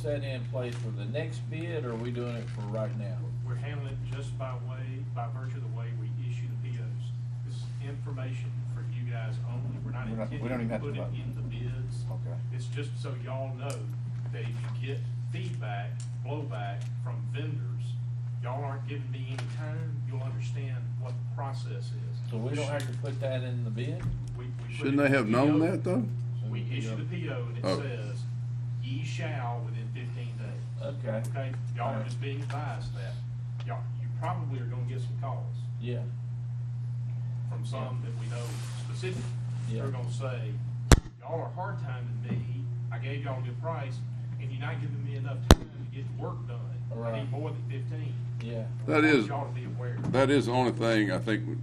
set in place for the next bid, or are we doing it for right now? We're handling it just by way, by virtue of the way we issue the POs. This is information for you guys only. We're not We're not- we don't even intending to have to put it vote. in the bids. Okay. It's just so y'all know that if you get feedback, blowback from vendors, y'all aren't giving me any time, you'll understand what the process is. So we don't have to put that in the bid? We- we put Shouldn't it they in have the PO. known that though? We issue the PO and it Oh. says, ye shall within fifteen days. Okay, Okay, y'all are just being advised that. Y'all, you probably are gonna get some calls yeah, from some that we know specifically. Yeah. They're gonna say, y'all are hard timing me, I gave y'all a good price, and you're not giving me enough time to get the work done. I Right. need more than fifteen. yeah. We That want is- Y'all to be aware. That is the only thing I think would-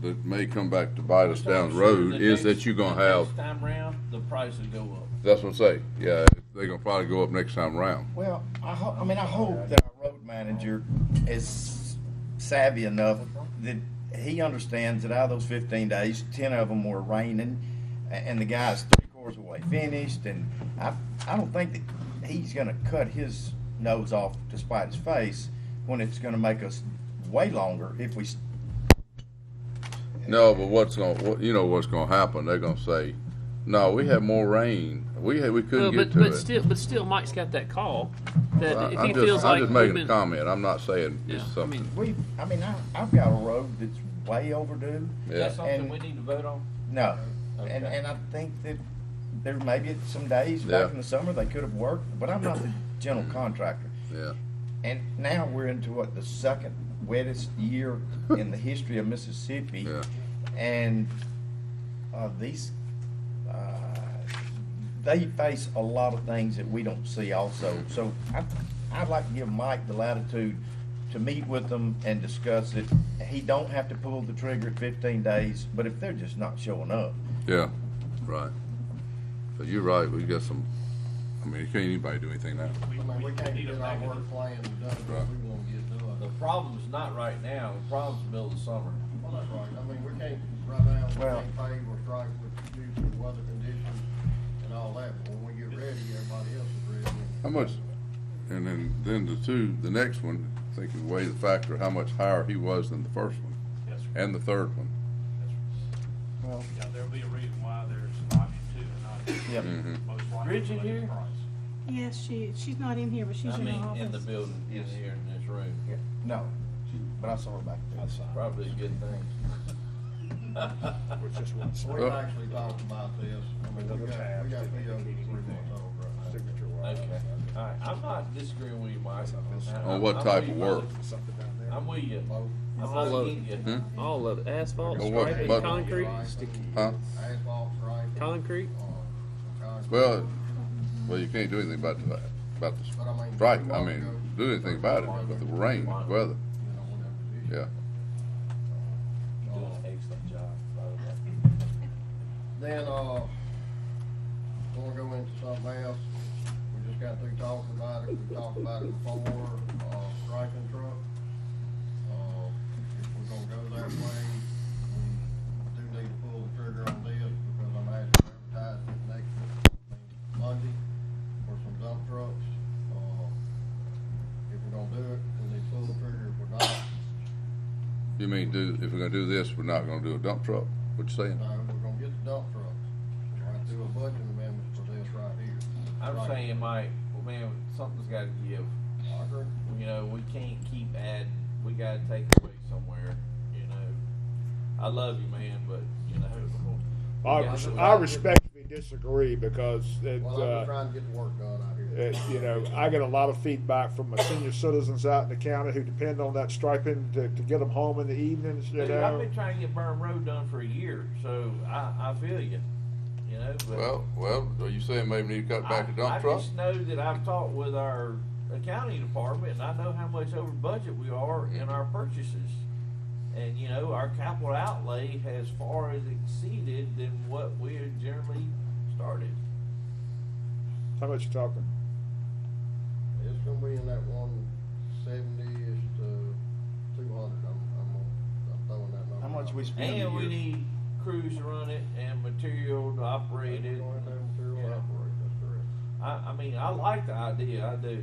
that may come back to bite us down the road The next- is that you're gonna the have, Next time round, the price will go up. that's what I'm saying, yeah, they're gonna probably go up next time around. Well, I ho- I mean, I hope that our road manager is savvy enough that he understands that out of those fifteen days, ten of them were raining, a- and the guy's three quarters away finished, and I, I don't think that he's gonna cut his nose off to spite his face when it's gonna make us way longer if we, s- No, but what's gonna, what, you know what's gonna happen, they're gonna say, no, we had more rain, we had, we Well, couldn't but, get but to it. still, but still, Mike's got that call that I- if he I'm feels just, like I'm just we've making a been- comment, I'm not saying Yeah, I it's mean- something, we, I mean, I, I've got a road that's way overdue. Is that yeah. something And- we need to vote on? No, Okay. and and I think that there may be some days Yeah. Mm-hmm. back in the summer they could have worked, but I'm not the general contractor. Yeah, And now we're into what the second wettest year in the history of Mississippi, yeah. and uh, these uh, they face a lot of things that we don't see Mm-hmm. also. So I, I'd like to give Mike the latitude to meet with them and discuss it. He don't have to pull the trigger at 15 days, but if they're just not showing up. Yeah, right. But you're right, we got some, I mean, can't anybody do anything now. We, I mean, we we can't need a get our negative. work plan done, if we're Right. gonna get done. The problem's not right now, the problem's middle of summer. Well, that's right, I mean, we can't, right now, we Well- can't pave or strike with, due to weather conditions and all that, but when we get ready, everybody else is ready. How much, and then, then the two, the next one, I think is way the factor, how much higher he was than the first one, Yes, sir. and the third one. Yes, sir. Well, Yeah, there'll be a reason why there's an option two and not. Yep. Mhm. Most likely. Bridget the here? price. Yes, she, she's not in here, but she's I in the mean, in the office. building, in here, in this room. no, but I saw her back there. Probably a good thing. We've actually talked about this, I mean, we got, we got PO three months old right now. Okay, all right, I'm not disagreeing with you, Mike. On what I'm type with of you, work? brother. I'm with you. I'm All not of against you. Hmm? all of it, asphalt, Well, what- striping, but- concrete, Huh? Asphalt, right? Uh, concrete. Well, well, you can't do anything about the, about the strike, I mean, do anything about it, but the rain, the weather, yeah. You're doing an excellent job, by the way. Then, uh, we'll go into something else. We just got through talking about it. We talked about it before, uh, striking truck. Uh, if we're gonna go that way, we do need to pull the trigger on this because I'm asking to advertise it next Monday for some dump trucks. Uh, if we're gonna do it, we need to pull the trigger. If we're not, You mean, do, if we're gonna do this, we're not gonna do a dump truck, what you saying? no, uh, we're gonna get the dump trucks. We're gonna do a budget amendment for this right here. I'm Right. saying, Mike, well, man, something's gotta give. I agree. You know, we can't keep adding. We gotta take away somewhere, you know. I love you, man, but, you know. I, we gotta res- do it. I respectfully disagree because it, Well, I'm just uh, trying to get the work done out here. it, you know, I get a lot of feedback from my senior citizens out in the county who depend on that striping to, to get them home in the evenings, you Dude, I've know. been trying to get Burn Road done for a year, so I, I feel you, you know, but. well, are you saying maybe we need to cut I- I just know that I've talked with our accounting department, and I know how much over budget we are in our purchases. And, you know, our capital outlay has far as exceeded than what we had generally started. How much you talking? It's gonna be in that one seventy-ish to two hundred, I'm, I'm, gonna- I'm throwing that number. How much out. we spend? And we need crews to run it and material to operate it. Going down through Yeah. operate, that's correct. I, I mean, I like the idea, I do.